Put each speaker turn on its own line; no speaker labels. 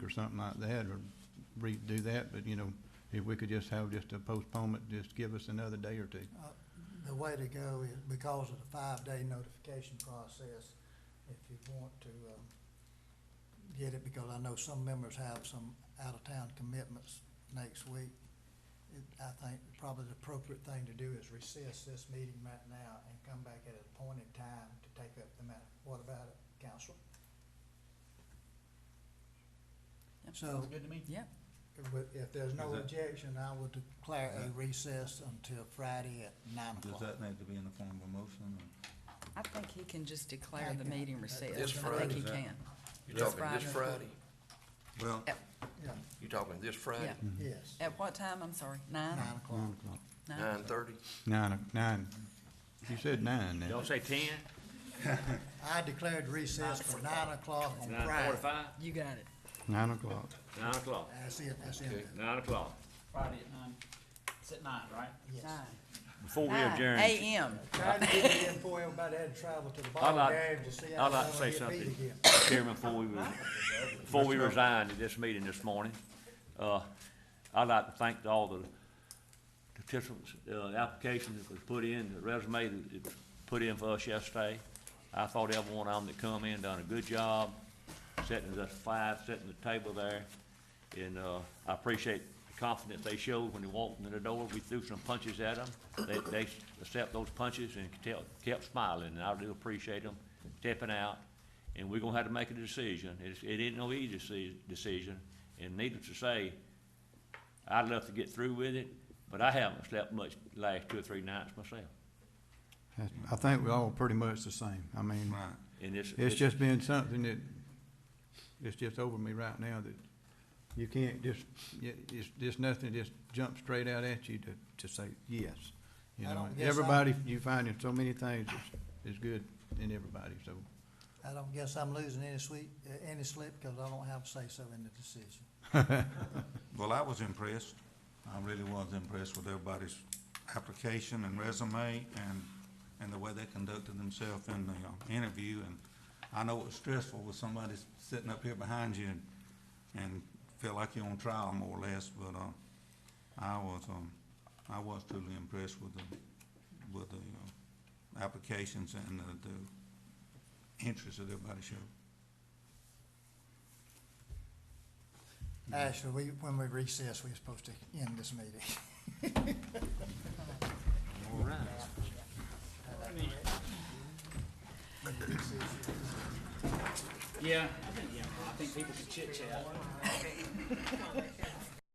something like that, or redo that, but, you know, if we could just have just a postponement, just give us another day or two.
Uh, The way to go is because of the five-day notification process, if you want to, um, get it, because I know some members have some out-of-town commitments next week. It, I think probably the appropriate thing to do is recess this meeting right now and come back at an appointed time to take up the matter. What about it, council?
Yep.
So,
Good to me.
Yeah,
if- if there's no
Is that-
objection, I will declare a
Is that-
recess until Friday at nine o'clock.
Does that need to be in the form of a motion? or-
I think he can just declare the
Okay.
meeting recessed.
This
I think
Friday,
he
is that-
can.
You're
This
talking this
Friday.
Friday?
Well,
At,
Yeah,
You're talking this
yeah.
Friday,
Mm-hmm.
yes,
At what time? I'm sorry, nine?
nine o'clock.
Nine o'clock.
Nine?
nine thirty?
Nine, o- nine. You said nine now.
Don't say ten,
I declared recess for nine o'clock on
nine
Friday.
forty-five,
You got it.
Nine o'clock.
nine o'clock,
That's it, that's
Okay.
it.
nine o'clock.
Friday at nine, it's at nine, right?
Yes.
Nine.
Before we
Nine
adjourn,
AM.
Trying to get it in before everybody had to travel to the
I'd
ball
like-
game to see
I'd
how
like to
long
say
it beat
something.
again.
Chairman, before we, re- before we resigned at this meeting this morning, uh, I'd like to thank all the participants, uh, applications that was put in, the resume that was put in for us yesterday. I thought every one of them that come in done a good job, setting us five, setting the table there. And, uh, I appreciate the confidence they showed when they walked in the door. We threw some punches at them. They, they accept those punches and kept, kept smiling, and I do appreciate them stepping out. And we're gonna have to make a decision. It's, it ain't no easy deci- decision, and needless to say, I'd love to get through with it, but I haven't slept much the last two or three nights myself.
That's- I think we're all pretty much the same. I mean,
right.
And it's,
it's just been something that, it's just over me right now that you can't just, y- it's, it's nothing, just jump straight out at you to, to say yes. You
I
know,
don't guess I-
everybody, you find in so many things is, is good in everybody, so.
I don't guess I'm losing any sweet, uh, any sleep because I don't have say-so in the decision.
Well, I was impressed. I really was impressed with everybody's application and resume and, and the way they conducted themselves in the uh, interview. And I know it's stressful with somebody sitting up here behind you and, and feel like you're on trial more or less, but, uh, I was, um, I was truly impressed with the, with the, uh, applications and the, the interest that everybody showed.
Mm-hmm.
Actually, we, when we recess, we're supposed to end this meeting.
all right.
Yeah, I think, yeah, I think people can chit chat.